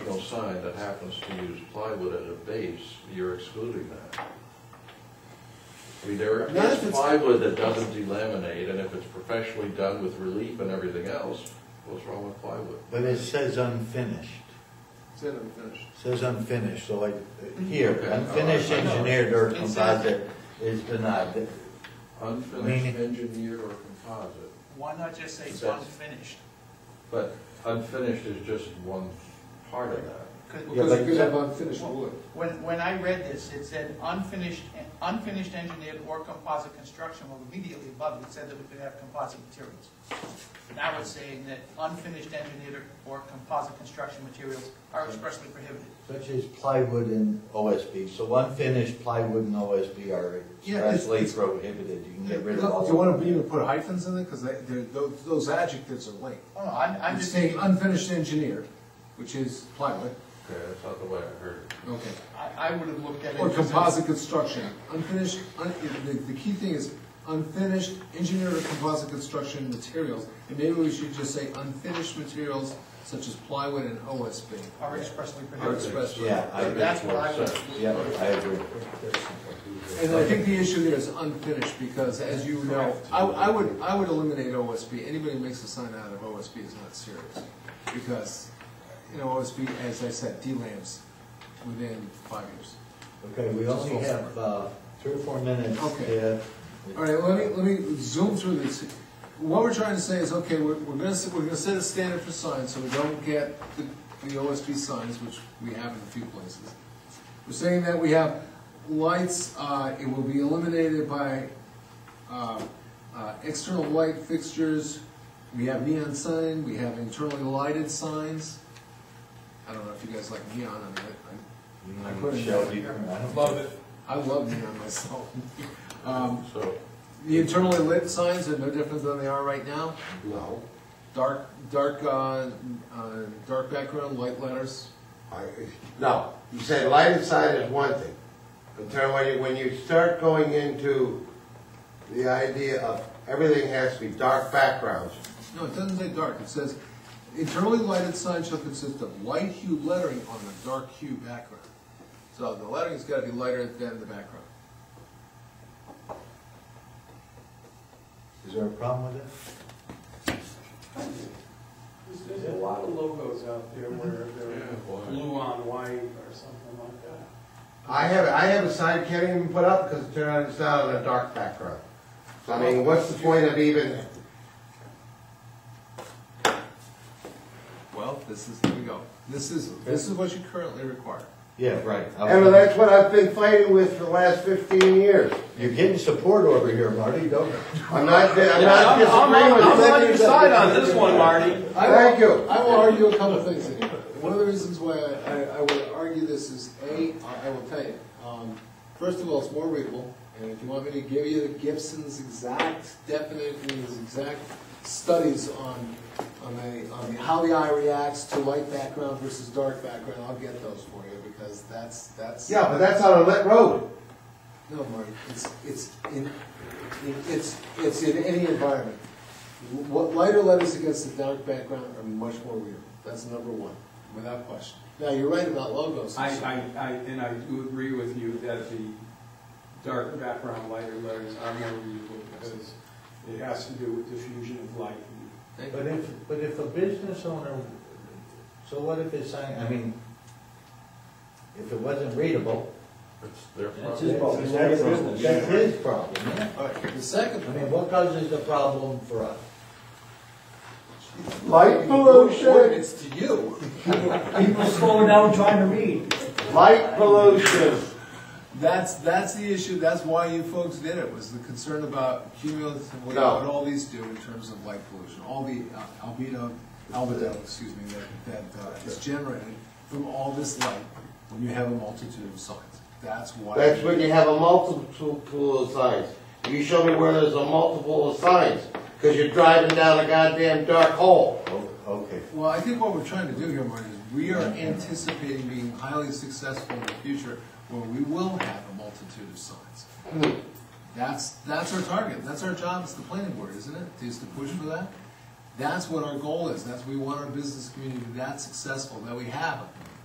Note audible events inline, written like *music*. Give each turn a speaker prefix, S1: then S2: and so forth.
S1: sign that happens to use plywood as a base, you're excluding that. I mean, there
S2: Not if
S1: is
S2: it's-
S1: plywood that doesn't delaminate, and if it's professionally done with relief and everything else, what's wrong with plywood?
S3: But it says unfinished,
S2: It's in unfinished.
S3: It says unfinished, so like uh, here,
S1: Okay, all right,
S3: unfinished
S2: Oh,
S1: I know.
S3: engineered or
S4: It says-
S3: composite is denied.
S1: Unfinished
S3: Meaning-
S1: engineered or composite,
S4: Why not just say it's
S1: That's-
S4: unfinished?
S1: but unfinished is just one part of that.
S4: 'Cause-
S3: Yeah,
S2: Because
S3: but-
S2: you could have unfinished wood.
S4: When, when I read this, it said unfinished, unfinished engineered or composite construction, well, immediately above it said that we could have composite materials. Now it's saying that unfinished engineered or composite construction materials are expressly prohibited.
S3: Such as plywood and OSB, so unfinished plywood and OSB are
S2: Yeah, it's-
S3: expressly
S2: it's-
S3: prohibited, you can get rid of all.
S2: Do you want to even put hyphens in it? Because they, they're, tho- those adjectives are linked.
S4: Oh, no, I'm, I'm
S2: It's
S4: just
S2: saying
S4: saying,
S2: unfinished engineered, which is plywood,
S1: Okay, that's not the way I heard it.
S2: okay.
S4: I, I would have looked at it.
S2: Or
S4: as a-
S2: composite construction, unfinished, un- the, the key thing is unfinished engineered or composite construction materials. And maybe we should just say unfinished materials such as plywood and OSB.
S4: Are expressly
S2: Are
S4: prohibited.
S2: expressed.
S3: Yeah, I agree.
S4: That's what I would.
S3: Yeah, I agree.
S2: And I think the issue there is unfinished, because as you know, I, I would, I would eliminate OSB, anybody who makes a sign out of OSB is not serious. Because, you know, OSB, as I said, delamps within five years.
S3: Okay, we only have, uh, three or four minutes.
S2: Okay.
S3: uh,
S2: All right, let me, let me zoom through this. What we're trying to say is, okay, we're, we're gonna, set- we're gonna set a standard for signs, so we don't get the, the OSB signs, which we have in a few places. We're saying that we have lights, uh, it will be eliminated by, uh, uh, external light fixtures. We have neon sign, we have internally lighted signs. I don't know if you guys like neon, I mean, I, I put it
S3: Shall
S2: down.
S3: we- Mm, I don't-
S4: Love it.
S2: I love neon myself. *laughs* Um,
S1: So,
S2: the internally lit signs are no different than they are right now.
S5: No,
S2: Dark, dark, uh, uh, dark background, light letters.
S5: I, no, you said light inside is one thing, but then when you, when you start going into the idea of everything has to be dark backgrounds,
S2: No, it doesn't say dark, it says, internally lighted signs shall consist of light hue lettering on the dark hue background. So the lettering's gotta be lighter than the background.
S3: Is there a problem with it?
S6: There's a lot of logos out there where
S1: Yeah, why?
S6: they're blue on white or something like that.
S5: I have, I have a sign can't even put up because it turned out it's not on a dark background. So I mean, what's the point of even,
S2: Well, this is, here we go. This is, this is what you currently require.
S3: Yeah, right. I
S5: and
S3: was-
S5: that's what I've been fighting with for the last fifteen years.
S3: You're getting support over here, Marty, don't.
S5: I'm not, I'm not disagreeing with you.
S7: on this one, Marty.
S2: I will-
S5: Thank you.
S2: I will argue a couple things in here. One of the reasons why I, I- I would argue this is, A, I I will tell you, um, first of all, it's more readable, and if you want me to give you Gibson's exact definite, and his exact studies on, on the, on the- how the eye reacts to light background versus dark background, I'll get those for you, because that's, that's.
S5: Yeah, but that's on a lit road.
S2: No, Marty, it's, it's in, in- it's, it's in any environment. What lighter letters against the dark background are much more real. That's number one, without question. Now, you're right about logos.
S6: I, I, I, and I do agree with you that the dark background lighter letters are more readable because it has to do with diffusion of light.
S3: But if, but if a business owner, so what if it's sign, I mean, if it wasn't readable,
S1: it's their
S3: that's
S1: problem.
S3: his problem. That's his- that's his problem, yeah.
S2: All right, the second
S3: I
S2: one.
S3: mean, what causes the problem for us?
S5: Light
S6: Oh,
S2: What
S5: pollution,
S2: It's to you.
S8: People slowing down trying to read.
S5: light pollution.
S2: That's, that's the issue, that's why you folks did it, was the concern about cumulatively
S5: No.
S2: what all these do in terms of light pollution, all the uh, albedo, albedo, excuse me, that, that uh, is generated from all this light when you have a multitude of signs. That's why.
S5: That's when you have a multiple of signs. You show me where there's a multiple of signs, because you're driving down a goddamn dark hole.
S3: Oh, Okay.
S2: Well, I think what we're trying to do here, Marty, is we are anticipating being highly successful in the future where we will have a multitude of signs. That's, that's our target, that's our job as the planning board, isn't it, is to push for that? That's what our goal is, that's, we want our business community to be that successful, that we have